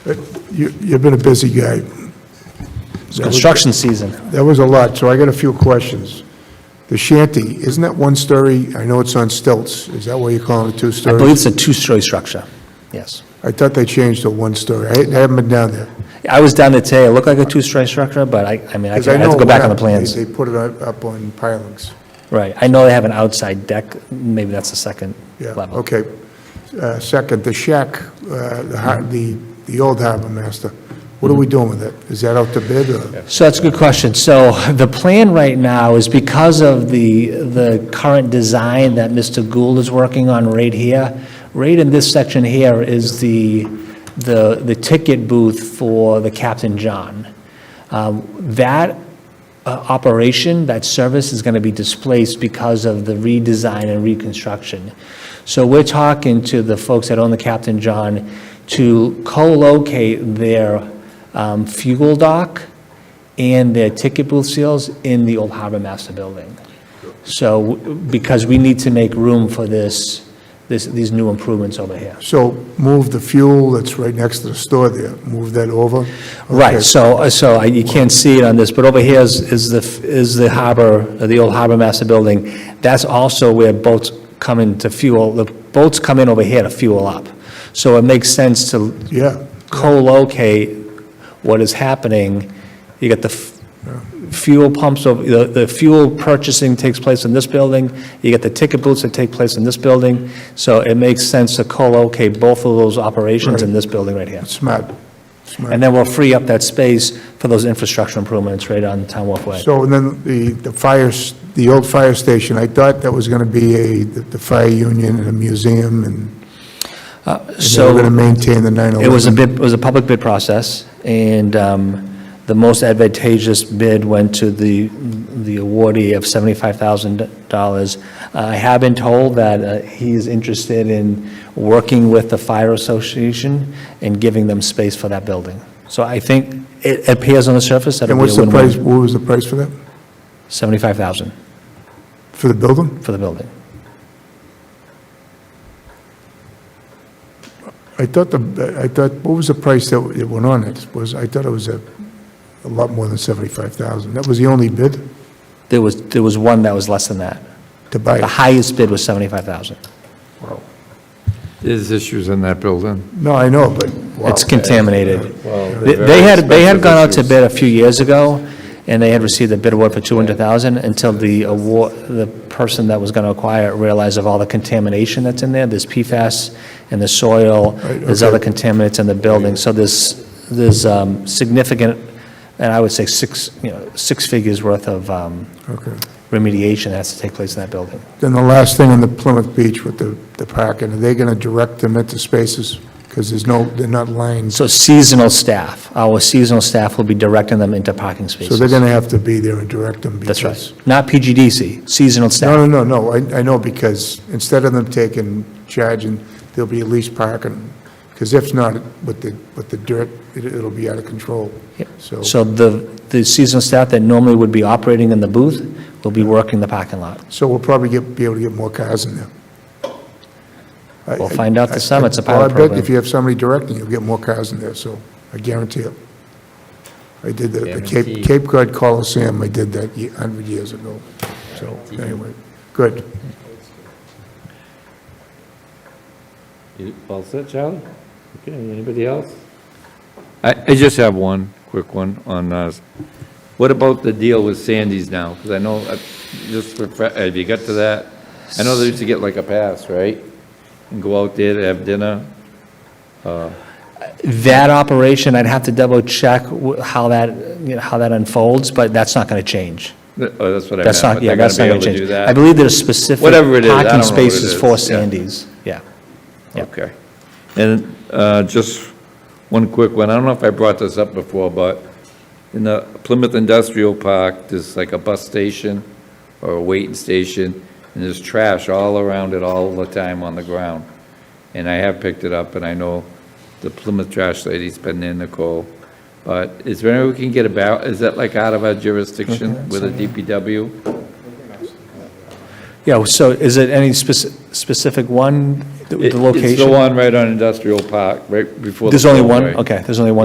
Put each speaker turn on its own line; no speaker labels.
But you- You've been a busy guy.
It's construction season.
That was a lot, so I got a few questions. The shanty, isn't that one story? I know it's on stilts. Is that why you're calling it two
I believe
stories?
it's a two-story structure, yes.
I thought they changed to one story. I I haven't been down there.
I was down there today, it looked like a two-story structure, but I, I mean, I
'Cause
can- I have
know
to go back
it
on the
went up.
plans.
They they put it up up on pilings.
Right, I know they have an outside deck, maybe that's the second
Yeah,
level.
okay. Uh, Second, the shack, uh, the
Mm-hmm.
har- the the old harbor master, what are we doing with it? Is that out to bid or?
So that's a good question. So the plan right now is because of the, the current design that Mr. Gould is working on right here, right in this section here is the, the, the ticket booth for the Captain John. Um, That uh, operation, that service is going to be displaced because of the redesign and reconstruction. So we're talking to the folks that own the Captain John to co-locate their um, fuel dock and their ticket booth seals in the old Harbor Master Building. So, because we need to make room for this, this, these new improvements over here.
So move the fuel that's right next to the store there, move that over?
Right,
Okay.
so, so I- you can't see it on this, but over here is, is the, is the harbor, the old harbor master building. That's also where boats come in to fuel, the boats come in over here to fuel up. So it makes sense to
Yeah,
co-locate what is happening. You got the f- fuel pumps, of- the, the fuel purchasing takes place in this building, you get the ticket booths that take place in this building, so it makes sense to co-locate both of those operations in this building right here.
smart, smart.
And then we'll free up that space for those infrastructure improvements right on Town Wharf Way.
So, and then the, the fires, the old fire station, I thought that was going to be a, the the fire union and a museum, and and they were going to
So
maintain the
it was a
911.
bid, it was a public bid process, and um, the most advantageous bid went to the, the awardee of $75,000. I have been told that uh, he is interested in working with the fire association and giving them space for that building. So I think it appears on the surface that
And
it'll be
what's
a
the price,
win-win.
what was the price for that,
75,000
for the building?
for the building.
I thought the, I thought, what was the price that it went on it? Was, I thought it was a, a lot more than 75,000. That was the only bid
There was, there was one that was less than that.
to buy
The
it?
highest bid was 75,000.
There's issues in that building.
No, I know, but, wow,
It's contaminated. They
They
they had, they had gone out to bid a few years ago, and they had received a bid award for 200,000 until the award, the person that was going to acquire it realized of all the contamination that's in there, there's PFAS in the soil, there's
okay.
other contaminants in the building, so there's, there's um, significant, and I would say six, you know, six figures worth of um,
okay.
remediation that has to take place in that building.
Then the last thing on the Plymouth Beach with the, the parking, are they going to direct them into spaces? Because there's no, they're not lined, so
So seasonal staff, our seasonal staff will be directing them into parking spaces.
they're going to have to be there and direct them.
That's
because-
right. Not PGDC, seasonal staff.
No, no, no, no, I, I know, because instead of them taking, charging, there'll be at least parking, because if not, with the, with the dirt, it- it'll be out of control, so.
So the, the seasonal staff that normally would be operating in the booth will be working the parking lot.
So we'll probably get, be able to get more cars in there. I-
We'll find out
I-
this summer. It's a
Well,
pilot
I bet
program.
if you have somebody directing, you'll get more cars in there, so I guarantee it. I did the- the Cape,
Guaranteed.
Cape Cod Coliseum, I did that a hundred years ago, so, anyway, good.
You All set, Charlie? Okay, anybody else? I, I just have one, quick one on, uh, what about the deal with Sandy's now? Because I know, uh, just, for fa- have you got to that? I know they used to get like a pass, right? And go out there to have dinner.
That operation, I'd have to double check wh- how that, you know, how that unfolds, but that's not going to change.
Th- Oh, that's what I meant.
That's not,
but
yeah,
they're
that's not
be
going
able
to
do
change.
that?
I believe there's specific
Whatever it is, I don't
parking
know what it
spaces
is,
for
yeah.
Sandy's, yeah. Yeah.
Okay. And uh, just one quick one, I don't know if I brought this up before, but in the Plymouth Industrial Park, there's like a bus station or a waiting station, and there's trash all around it all the time on the ground. And I have picked it up, and I know the Plymouth trash lady's been in, Nicole. But is there any way we can get about, is that like out of our jurisdiction with the DPW?
Yeah, so is it any spec- specific one The the
It- It's the
location?
one right on Industrial Park, right before the.
There's only one?
Beltway.
Okay, there's only one